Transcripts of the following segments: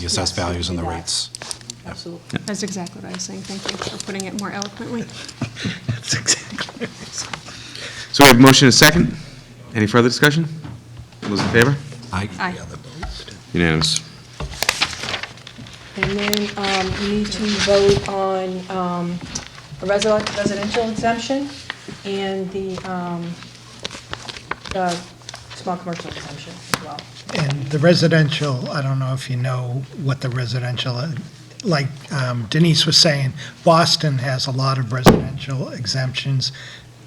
the assessed Yes, we values can and do the that. rates. Absolutely. That's exactly what I was saying. Thank you for putting it more eloquently. That's exactly. So we have a motion and a second. Any further discussion? All those in favor? I, Aye. Unanimous. And then um, you need to vote on um, a resi- residential exemption and the um, uh, small commercial exemption as well. And the residential, I don't know if you know what the residential, uh, like um, Denise was saying, Boston has a lot of residential exemptions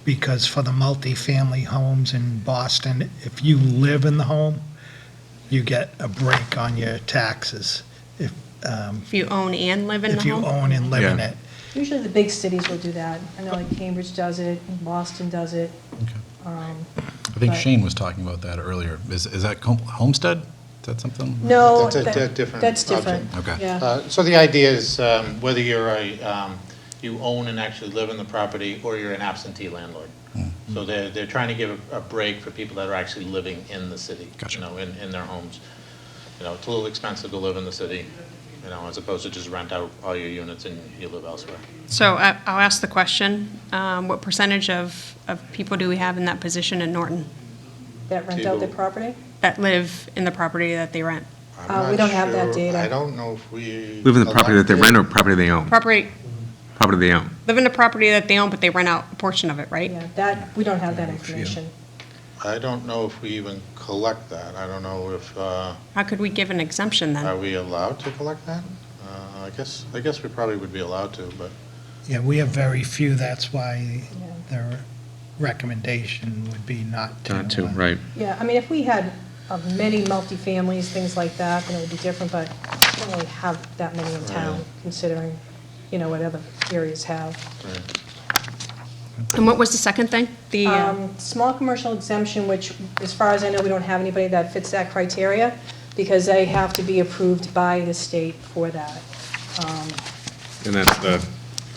because for the multifamily homes in Boston, if you live in the home, you get a break on your taxes if, um, If you own and live in the if you home. own and live in Yeah. it. Usually the big cities will do that. I know like Cambridge does it, and Boston does it. I think Right. Shane was talking about that earlier. Is, is that com- Homestead? Is that something? No. Mm-hmm. That's a that- di- different That's different. project. Okay. Yeah. Uh, So the idea is um, whether you're a, um, you own and actually live in the property, or you're an absentee landlord. So they're, they're trying to give a a break for people that are actually living in the city. Gotcha. You know, in, in their homes. You know, it's a little expensive to live in the city, you know, as opposed to just rent out all your units and you live elsewhere. So I- I'll ask the question, um, what percentage of, of people do we have in that position in Norton That rent out their Two. property? that live in the property that they rent? Uh, we don't have that data. I don't know if we. Live in the property that they rent or property they own? Property, Property they own. live in a property that they own, but they rent out a portion of it, right? Yeah, that, we don't have that information. I don't know if we even collect that. I don't know if, uh, How could we give an exemption are then? we allowed to collect that? Uh, I guess, I guess we probably would be allowed to, but Yeah, we have very few, that's why their recommendation would be not to. Not to, right. Yeah, I mean, if we had uh, many multifamilies, things like that, then it would be different, but we don't really have that many in town, considering, you know, what other areas have. And what was the second thing? The, uh, Um, Small commercial exemption, which, as far as I know, we don't have anybody that fits that criteria, because they have to be approved by the state for that. And that's the,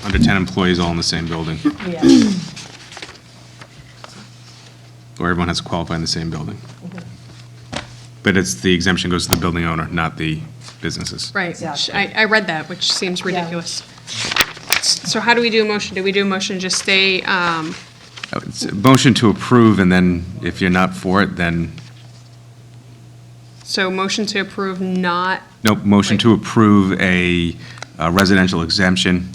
under 10 employees all in the same building, Yeah, or everyone has to qualify in the same building. But it's, the exemption goes to the building owner, not the businesses. right, which Exactly. I, I read that, which seems Yeah. ridiculous. So how do we do a motion? Do we do a motion to just stay, um, Uh, it's a Motion to approve, and then if you're not for it, then, so motion to approve not nope, motion to approve a uh, residential exemption.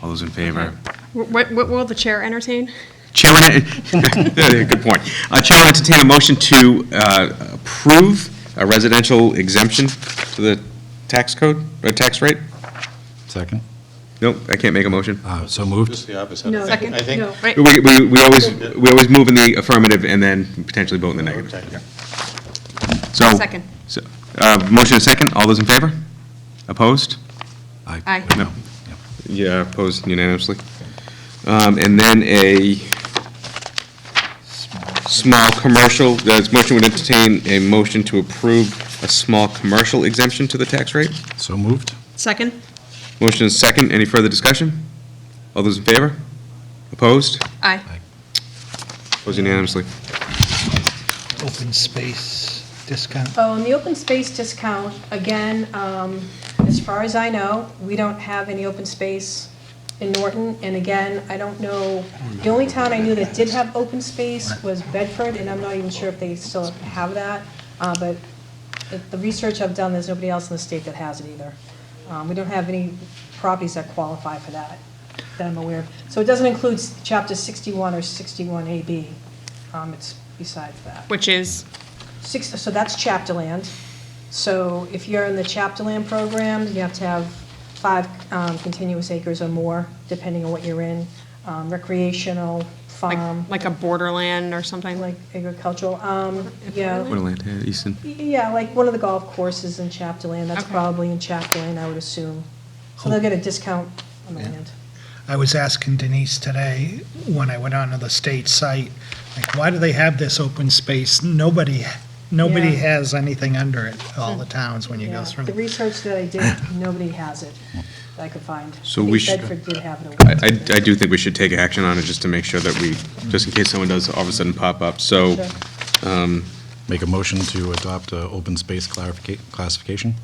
All those in favor? What, what will the chair entertain? Chair, will enter- uh, good point. Uh, Chair will entertain a motion to uh, approve a residential exemption to the tax code, or tax rate? Second? Nope, I can't make a motion. Uh, So moved? just the opposite. no, I think- Second. I think no, Right, We, we, we always, we always move in the affirmative and then potentially vote in the negative. Okay. Yeah. So. Second. so, uh, Motion and second, all those in favor? Opposed? I- Aye. No. Yeah, opposed unanimously. Um, And then a small commercial, the motion would entertain a motion to approve a small commercial exemption to the tax rate. So moved? Second? Motion is second, any further discussion? All those in favor? Opposed? Aye. Opposed unanimously. Open space discount. Oh, and the open space discount, again, um, as far as I know, we don't have any open space in Norton. And again, I don't know, the only town I knew that did have open space was Bedford, and I'm not even sure if they still have that. Uh, But the- the research I've done, there's nobody else in the state that has it either. Um, We don't have any properties that qualify for that, that I'm aware of. So it doesn't include s- Chapter 61 or 61AB. Um, It's besides that. Which is, Six, so that's chapter land. So if you're in the chapter land program, you have to have five um, continuous acres or more, depending on what you're in, um, recreational, farm, like, like a borderland or something? like agricultural, um, yeah. Woodland, uh, Easton. Yeah, like one of the golf courses in chapter land, that's Okay. probably in chapter land, I would assume. So they'll get a discount on the land. I was asking Denise today, when I went onto the state site, like, why do they have this open space? Nobody, nobody Yeah. has anything under it, all the towns, when you Yeah, go through. the research that I did, nobody has it that I could find. So I we think should- Bedford did have it. I, I- I do think we should take action on it just to make sure that we, just in case someone does all of a sudden pop up. So Sure. Make a motion to adopt uh open space clarifica- classification?